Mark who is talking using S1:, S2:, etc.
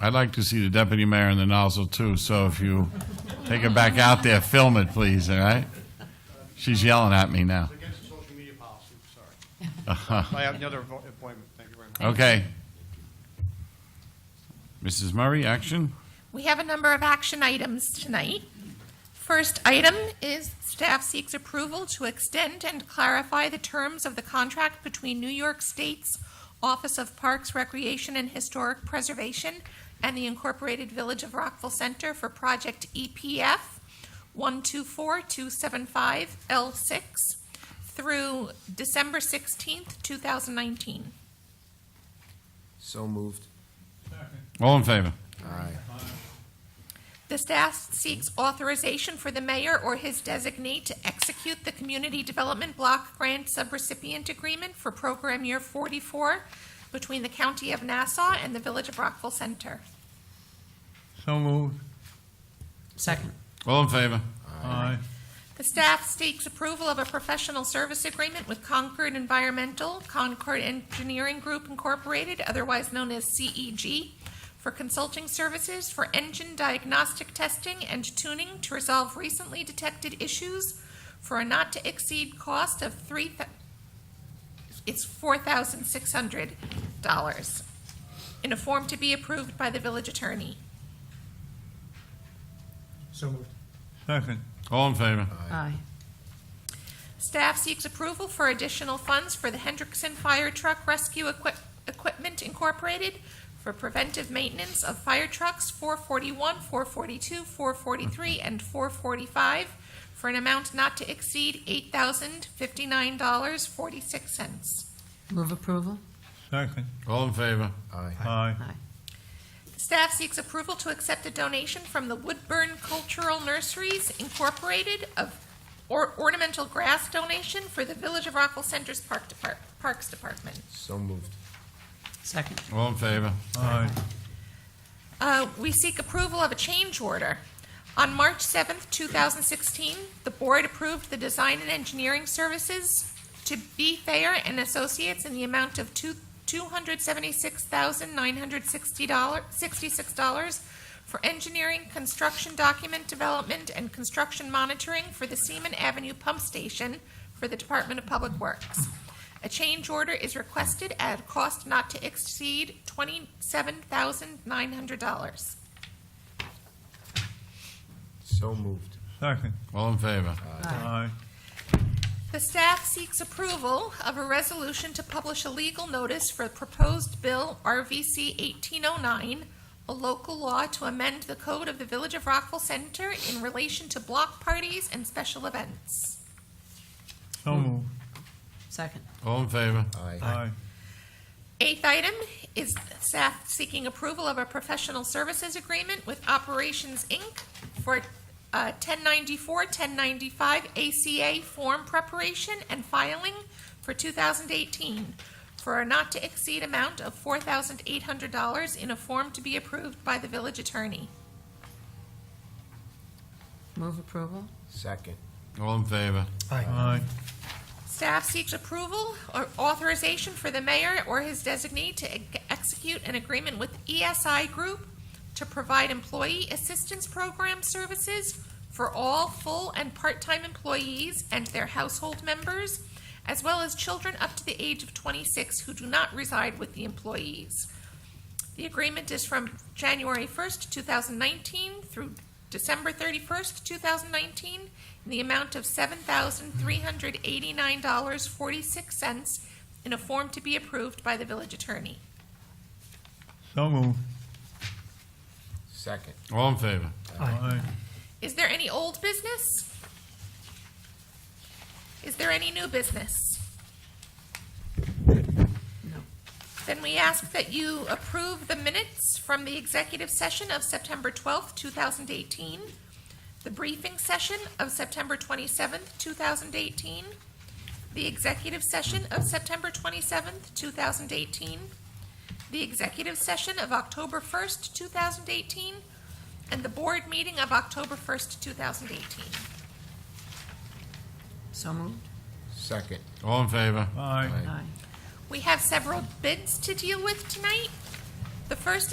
S1: I'd like to see the deputy mayor in the nozzle too, so if you take her back out there, film it, please, all right? She's yelling at me now.
S2: It's against the social media policy, sorry. I have another vo- appointment, thank you very much.
S1: Okay. Mrs. Murray, action?
S3: We have a number of action items tonight. First item is staff seeks approval to extend and clarify the terms of the contract between New York State's Office of Parks, Recreation, and Historic Preservation and the Incorporated Village of Rockville Center for Project E EPF 124275L6 through December 16th, 2019.
S4: So moved.
S1: All in favor?
S4: Aye.
S3: The staff seeks authorization for the mayor or his designee to execute the Community Development Block Grant Subrecipient Agreement for Program Year 44 between the County of Nassau and the Village of Rockville Center.
S5: So moved.
S6: Second.
S1: All in favor?
S5: Aye.
S3: The staff seeks approval of a professional service agreement with Concord Environmental, Concord Engineering Group Incorporated, otherwise known as CEG, for consulting services for engine diagnostic testing and tuning to resolve recently detected issues for a not-to-exceed cost of three, thou- it's $4,600 in a form to be approved by the village attorney.
S5: So moved. Second.
S1: All in favor?
S6: Aye.
S3: Staff seeks approval for additional funds for the Hendrickson Fire Truck Rescue Equip- Equipment Incorporated for preventive maintenance of fire trucks 441, 442, 443, and 445 for an amount not to exceed $8,059.46.
S6: Move approval?
S5: Second.
S1: All in favor?
S4: Aye.
S5: Aye.
S6: Aye.
S3: Staff seeks approval to accept a donation from the Woodburn Cultural Nurseries Incorporated of or- ornamental grass donation for the Village of Rockville Center's Park Depart- Parks Department.
S4: So moved.
S6: Second.
S1: All in favor?
S5: Aye.
S3: Uh, We seek approval of a change order. On March 7th, 2016, the board approved the design and engineering services to B. Thayer and Associates in the amount of two- $276,966 for engineering, construction document development, and construction monitoring for the Seaman Avenue Pump Station for the Department of Public Works. A change order is requested at a cost not to exceed twenty-seven thousand nine hundred dollars.
S4: So moved.
S5: Second.
S1: All in favor?
S5: Aye.
S3: The staff seeks approval of a resolution to publish a legal notice for proposed bill RVC eighteen oh nine, a local law to amend the code of the Village of Rockville Center in relation to block parties and special events.
S5: So moved.
S6: Second.
S1: All in favor?
S4: Aye.
S5: Aye.
S3: Eighth item is staff seeking approval of a professional services agreement with Operations, Inc. for uh, 1094, 1095 ACA form preparation and filing for 2018 for a not-to-exceed amount of $4,800 in a form to be approved by the village attorney.
S6: Move approval?
S4: Second.
S1: All in favor?
S5: Aye.
S3: Staff seeks approval or authorization for the mayor or his designee to ex- execute an agreement with ESI Group to provide employee assistance program services for all full and part-time employees and their household members, as well as children up to the age of 26 who do not reside with the employees. The agreement is from January 1st, 2019 through December 31st, 2019, in the amount of $7,389.46 in a form to be approved by the village attorney.
S5: So moved.
S4: Second.
S1: All in favor?
S5: Aye.
S3: Is there any old business? Is there any new business?
S6: No.
S3: Then we ask that you approve the minutes from the executive session of September 12th, 2018, the briefing session of September 27th, 2018, the executive session of September 27th, 2018, the executive session of October 1st, 2018, and the board meeting of October 1st, 2018.
S6: So moved?
S4: Second.
S1: All in favor?
S5: Aye.
S6: Aye.
S3: We have several bids to deal with tonight. The first is